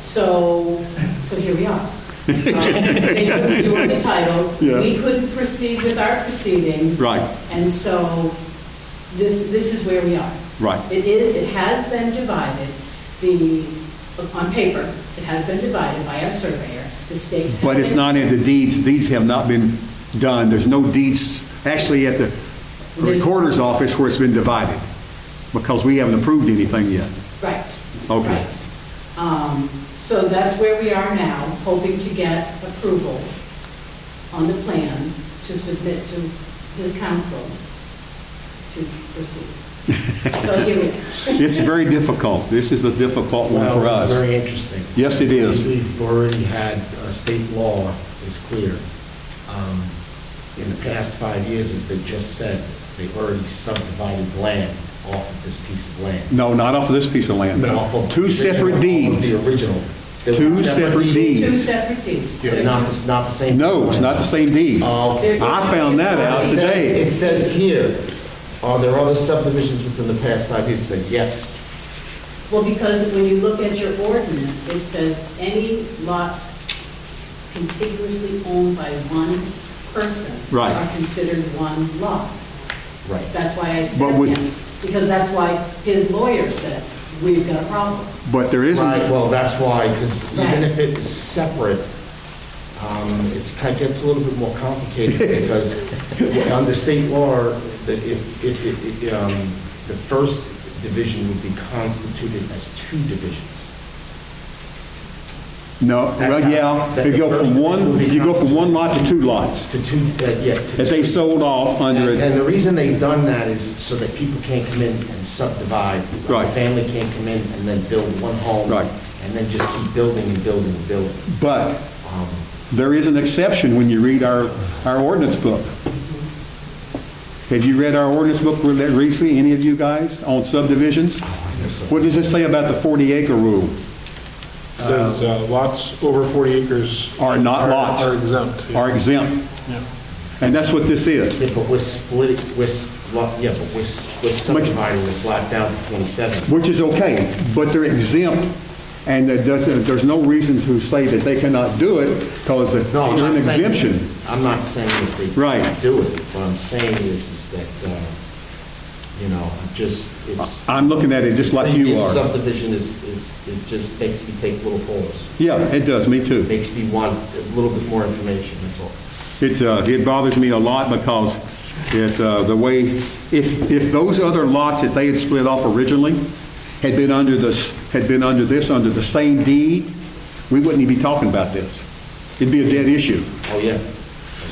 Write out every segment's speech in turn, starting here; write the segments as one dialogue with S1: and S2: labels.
S1: So, so here we are. Um, They couldn't do it the title.
S2: Yeah.
S1: We couldn't proceed with our proceedings.
S2: Right.
S1: And so this, this is where we are.
S2: Right.
S1: It is, it has been divided, the, on paper, it has been divided by our surveyor. The stakes have
S2: But it's
S1: been-
S2: not in the deeds, deeds have not been done, there's no deeds, actually at the recorder's office where it's been divided, because we haven't approved anything yet.
S1: Right.
S2: Okay.
S1: right. Um, So that's where we are now, hoping to get approval on the plan to submit to his council to proceed. So here we are.
S2: It's very difficult, this is a difficult one for
S3: Well,
S2: us.
S3: Very interesting.
S2: Yes, it is.
S3: We've already had, uh, state law is clear. Um, In the past five years, as they just said, they've already subdivided land off of this piece of land.
S2: No, not off of this piece of land.
S3: Off of
S2: Two
S3: the
S2: separate
S3: original- off of
S2: deeds.
S3: The original. They're
S2: Two separate deeds.
S1: Two separate deeds.
S3: They're not, it's not the same.
S2: No, it's not the same deed.
S3: Oh, okay.
S2: I found that out
S3: It says-
S2: today.
S3: It says here, are there other subdivisions within the past five years? It said yes.
S1: Well, because when you look at your ordinance, it says any lots contiguously owned by one person
S2: Right.
S1: are considered one lot.
S3: Right.
S1: That's why I
S2: But
S1: said
S2: we-
S1: yes, because that's why his lawyer said, we've got a problem.
S2: But there
S3: Right,
S2: isn't,
S3: well, that's why, because
S1: Right.
S3: even if it is separate, um, it's, kind of gets a little bit more complicated because under state law, that if, if, if, if, um, the first division would be constituted as two divisions.
S2: no, well, yeah, you go from one, you go from one lot to two lots,
S3: To two, uh, yeah. to
S2: that they
S3: two.
S2: sold off under
S3: And and
S2: it.
S3: the reason they've done that is so that people can't come in and subdivide. A
S2: Right.
S3: Family can't come in and then build one home.
S2: Right.
S3: And then just keep building and building and building.
S2: But
S3: Um,
S2: there is an exception when you read our, our ordinance book. Have you read our ordinance book re- recently, any of you guys, on subdivisions? What does it say about the 40 acre rule?
S4: Says uh, lots over 40 acres.
S2: Are not lots.
S4: Are exempt. yeah.
S2: Are exempt.
S4: Yeah.
S2: And that's what this is.
S3: Yeah, but we're splitting, we're, s- lot- yeah, but we're s- we're subdividing this lot down to 27.
S2: Which is okay, but they're exempt, and that doesn't, there's no reason to say that they cannot do it, because they're
S3: No, I'm
S2: an
S3: not saying-
S2: exemption.
S3: I'm not saying that they
S2: Right.
S3: can't do it. What I'm saying is, is that, uh, you know, I'm just, it's.
S2: I'm looking at it just like you
S3: previous
S2: are.
S3: Subdivision is, is, it just makes me take little pause.
S2: Yeah, it does, me too.
S3: It Makes me want a little bit more information, that's all.
S2: It, uh, it bothers me a lot because it, uh, the way, if, if those other lots that they had split off originally had been under this, had been under this, under the same deed, we wouldn't even be talking about this. It'd be a dead issue.
S3: Oh, yeah.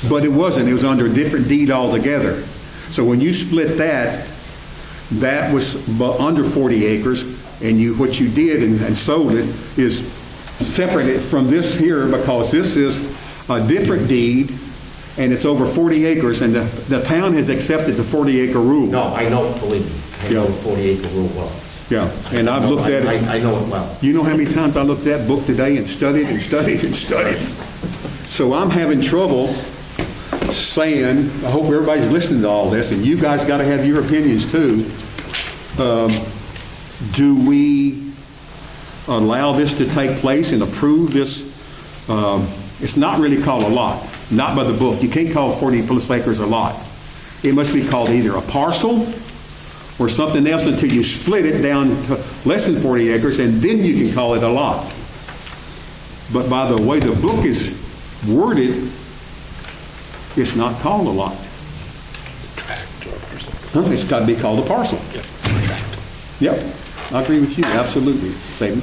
S2: But it wasn't, it was under a different deed altogether. So when you split that, that was bu- under 40 acres, and you, what you did and and sold it is separate it from this here, because this is a different deed, and it's over 40 acres, and the, the town has accepted the 40-acre rule.
S3: No, I know, believe me, I know the
S2: Yeah.
S3: 40 acre rule well.
S2: Yeah, and I've looked at
S3: I- I I
S2: it,
S3: know it well.
S2: you know how many times I looked at that book today and studied and studied and studied? So I'm having trouble saying, I hope everybody's listening to all this, and you guys got to have your opinions too. Um, Do we allow this to take place and approve this? um, It's not really called a lot, not by the book. You can't call 40 plus acres a lot. It must be called either a parcel or something else until you split it down to less than 40 acres, and then you can call it a lot. But by the way the book is worded, it's not called a lot. Huh? It's got to be called a parcel. Yep, I agree with you, absolutely, Satan.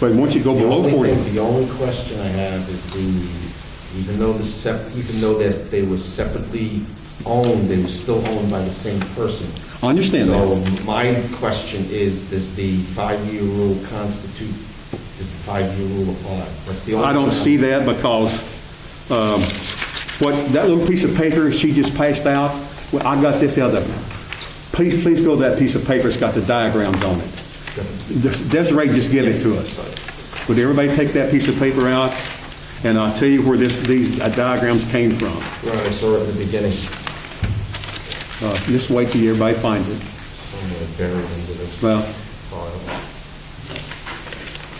S2: But once you go
S3: The
S2: below
S3: only
S2: 40,
S3: thing- The only question I have is the, even though the sep, even though that they were separately owned, they were still owned by the same person.
S2: I understand
S3: So
S2: that.
S3: my question is, does the five-year rule constitute, does the five-year rule apply? That's the only.
S2: I don't
S3: question.
S2: see that because um, what, that little piece of paper she just passed out, well, I got this out of, please, please go to that piece of paper, it's got the diagrams on it. Des- Desiree just gave it to us. Would everybody take that piece of paper out? And I'll tell you where this, these diagrams came from.
S3: Right, I saw it at the beginning,
S2: Uh, Just wait till everybody finds it.
S3: somewhere buried into this
S2: Well,
S3: file.